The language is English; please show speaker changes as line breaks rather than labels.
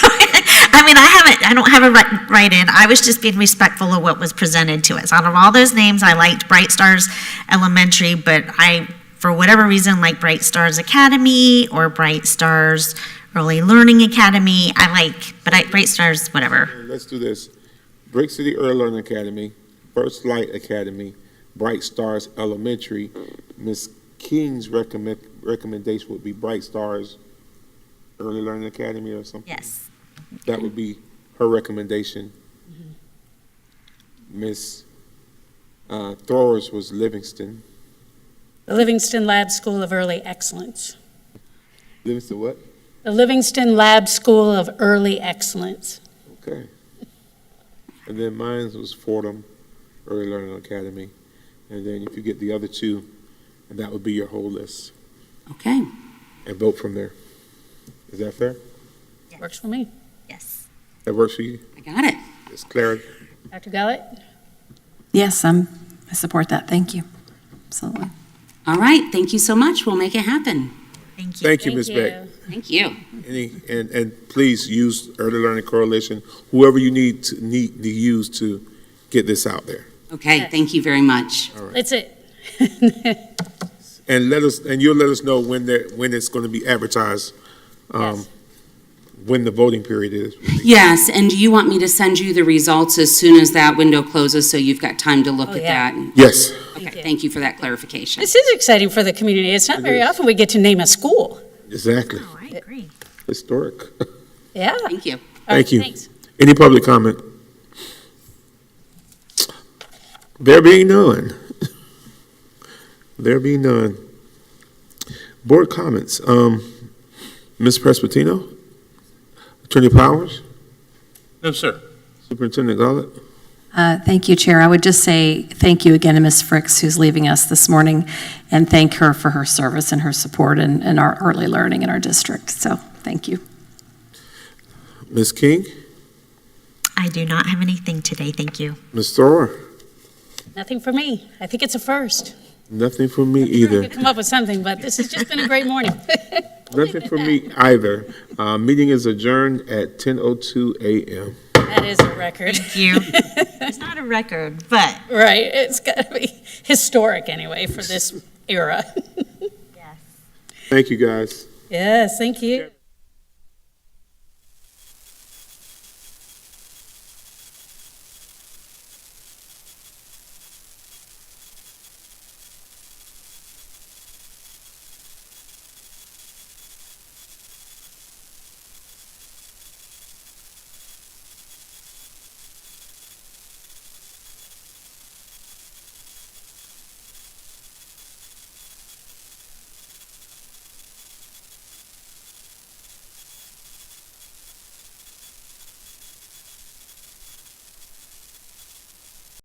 I mean, I haven't, I don't have a right, right in. I was just being respectful of what was presented to us. Out of all those names, I liked Bright Stars Elementary, but I, for whatever reason, like Bright Stars Academy or Bright Stars Early Learning Academy. I like, but I, Bright Stars, whatever.
Let's do this. Brick City Early Learning Academy, First Light Academy, Bright Stars Elementary. Ms. King's recommend, recommendation would be Bright Stars Early Learning Academy or something.
Yes.
That would be her recommendation. Ms. uh, Thor's was Livingston.
The Livingston Lab School of Early Excellence.
Livingston what?
The Livingston Lab School of Early Excellence.
Okay. And then mine was Fordham Early Learning Academy. And then if you get the other two, and that would be your whole list,
Okay,
and vote from there. Is that fair?
Works for me.
Yes.
That works for you?
I got it.
It's Claire?
Dr. Gullett?
Yes, I'm, I support that. Thank you. Absolutely.
All right, thank you so much. We'll make it happen.
Thank you.
Thank you, Ms. Beck.
Thank you.
Any, and, and please use Early Learning Coalition, whoever you need to, need to use to get this out there.
Okay,
Yes.
thank you very much.
That's it.
And let us, and you'll let us know when they're, when it's going to be advertised, um,
Yes.
when the voting period is.
Yes, and do you want me to send you the results as soon as that window closes so you've got time to look
Oh,
at
yeah.
that?
Yes.
Okay, thank you for that clarification.
This is exciting for the community. It's not
It
very
is.
often we get to name a school.
Exactly.
Oh, I agree.
Historic.
Yeah.
Thank you.
All right,
Thank you.
Thanks.
Any public comment? There being none. There being none. Board comments. Um, Ms. Presbitino? Attorney Powers?
No, sir.
Superintendent Gollett?
Uh, Thank you, Chair. I would just say thank you again to Ms. Fricks, who's leaving us this morning, and thank her for her service and her support in, in our early learning in our district. So, thank you.
Ms. King?
I do not have anything today. Thank you.
Ms. Thor?
Nothing for me. I think it's a first.
Nothing for me
I'm sure we
either.
could Come up with something, but this has just been a great morning.
Nothing for me either. Uh, meeting is adjourned at 10:02 a.m.
That is a record.
Thank you. It's not a record, but.
Right, it's got to be historic anyway for this era.
Thank you, guys.
Yes, thank you.